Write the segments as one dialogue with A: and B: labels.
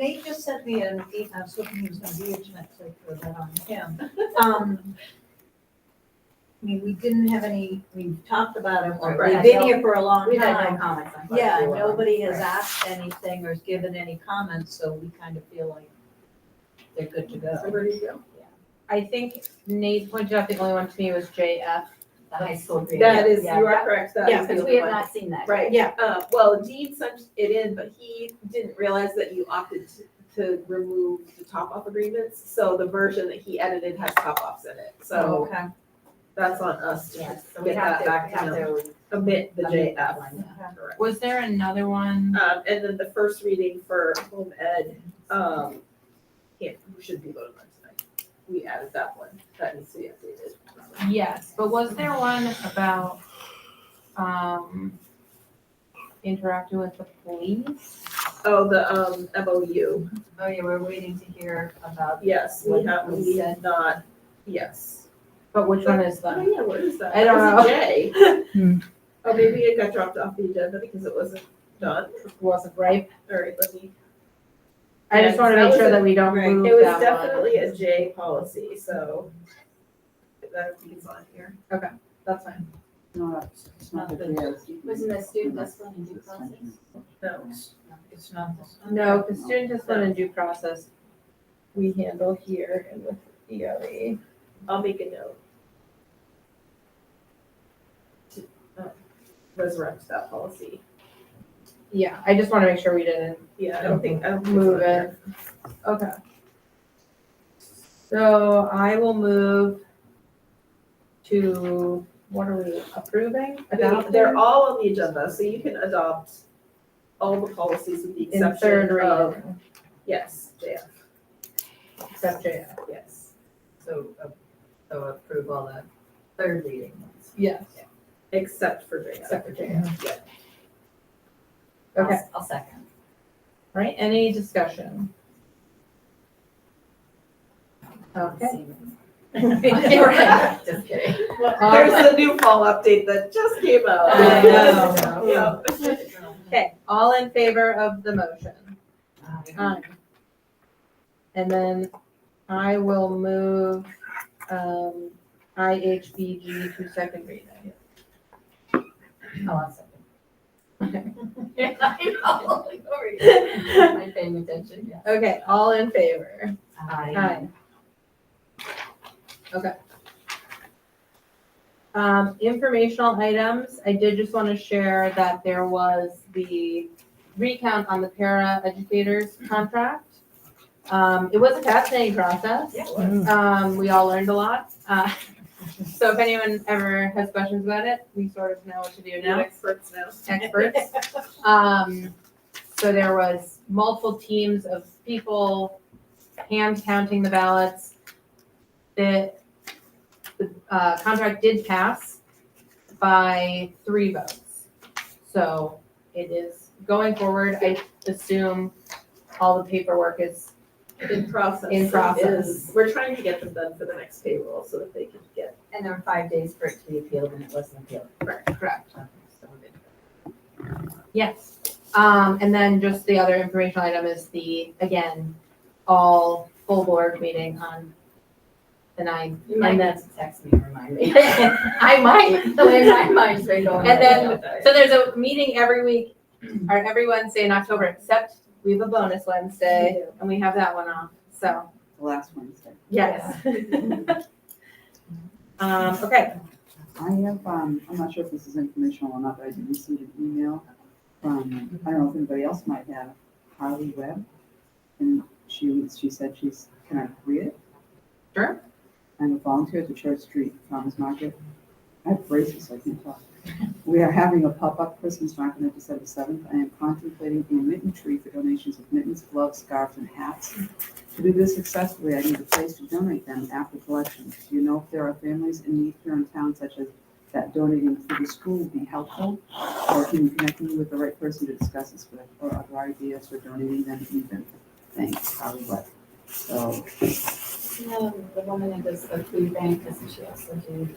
A: They just sent me an email, I was hoping he was gonna be here tonight, so I put that on him. Um, I mean, we didn't have any, we talked about him, or
B: Right.
A: we've been here for a long
B: We
C: Um,
B: had no
A: time.
B: comments on. Clark
A: Yeah,
B: Brewer.
A: nobody has
B: Right.
A: asked anything or has given any comments, so we kind of feel like they're good to
D: So
A: go.
D: there you go.
C: I think Nate pointed out the only one to me was JF.
B: The high school. grade.
D: That is,
B: Yeah,
D: you are
B: that-
D: correct, that
B: Yeah,
D: is the
B: because
D: only
B: we have
D: one.
B: not seen that.
D: Right, yeah, uh, well, Dean sent it in, but he didn't realize that you opted to, to remove the top-off agreements. So the version that he edited has top-offs in it, so
A: Okay,
D: that's on us to
B: Yes, Oh, so we
D: get
B: have
D: that
B: to,
D: back to
B: have
D: him.
B: to.
D: Omit the
B: omit that
D: JF.
B: one,
A: okay.
D: Correct.
C: Was there another one?
D: Um, and then the first reading for home ed, um, can't, should be voted on tonight. We added that one, that needs to be updated.
C: Yes, but was there one about, um, interacting with the police?
D: Oh, the, um, MOU,
B: Oh, yeah, we're waiting to hear about.
D: yes, we have, we had not, yes.
C: But which one is
D: Oh,
C: the?
D: yeah, what is that?
C: I don't
D: That's a
C: Hmm.
D: J. Oh, maybe it got dropped off the agenda because it wasn't done,
C: Wasn't right.
D: all right, let me,
C: I just wanna
D: Yes, that
C: make
D: was
C: sure
D: a-
C: that we don't
A: right.
C: move
D: it was
C: that one.
D: definitely a J policy, so. That is on here.
C: That's fine.
E: No, it's- it's not the JSU.
B: Wasn't the student discipline and due process?
D: No,
A: Mm-hmm. It's not this.
C: No, the student discipline and due process, we handle here and with E EOE.
D: I'll make a note. To, uh, resurrect that policy.
C: Yeah, I just wanna make sure we didn't
D: Yeah, I don't think, I don't. think it's on
C: Move
D: there.
C: it. Okay. So I will move to, what are we approving?
D: They- They're all on the agenda, so you can adopt all the policies with the
C: In third
D: exception of,
C: reading,
D: yes, JF,
C: except JF.
D: yes.
B: So, uh, so approve all the third reading ones.
C: Yes,
D: Except for JF.
C: except for JF.
D: Yeah.
B: I'll-
C: Okay,
B: I'll second.
C: all right, any discussion? Okay.
B: Right, Just kidding.
D: Um,
C: All right.
D: There's the new fall update that just came out.
C: I
B: Um,
C: know.
D: Yeah.
C: Okay, all in favor of the motion? Aye. And then I will move, um, IHBG to second reading.
B: Oh, I'll second.
C: Okay.
B: I know, like, sorry. Am I paying attention? Yeah.
C: Okay, all in favor? Aye. Okay. Um, informational items, I did just want to share that there was the recount on the para educators contract. Um, it was a fascinating process.
B: Yeah,
C: Um, we all learned a lot. Uh, so if anyone ever has questions about it, we sort of know what to do
D: New
C: now,
D: experts now.
C: experts. Um, so there was multiple teams of people hand counting the ballots. The, the, uh, contract did pass by three votes. So it is going forward, I assume all the paperwork is,
D: In process.
C: In process.
D: is- We're trying to get them done for the next payroll so that they can get,
B: And there were five days for it to be appealed and it wasn't appealed.
C: correct.
B: Okay, so we're good.
C: Yes. Um, and then just the other informational item is the, again, all full board meeting on the ninth.
B: You might
C: And
B: need
C: then-
B: to text me, and remind me.
C: I might.
B: The way my mind's been going.
C: And then-
D: About that.
C: So there's a meeting every week, or every Wednesday in October, except we have a bonus Wednesday and we have that one off. So,
E: The last Wednesday.
C: yes. Um, okay,
E: I have, um, I'm not sure if this is informational or not, but I did receive an email from, I don't know if anybody else might have, Harley Webb. And she, she said she's, can I read it?
C: Sure.
E: I'm a volunteer at the Church Street Farmers Market. I have braces, so I can't talk. We are having a pop-up Christmas market on December seventh. I am contemplating a mitten tree for donations of mittens, gloves, scarves, and hats. To do this successfully, I need a place to donate them after collection. Do you know if there are families in need here in town such as that donating through the school would be helpful? Or can you connect me with the right person to discuss this with, or other ideas for donating them even? Thanks, probably what? So,
B: No, the woman that does the food bank, doesn't she also do?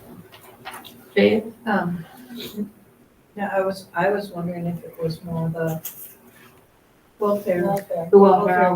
C: Faith,
A: Um, Yeah, I was, I was wondering if it was more the welfare.
B: Welfare.
C: the welfare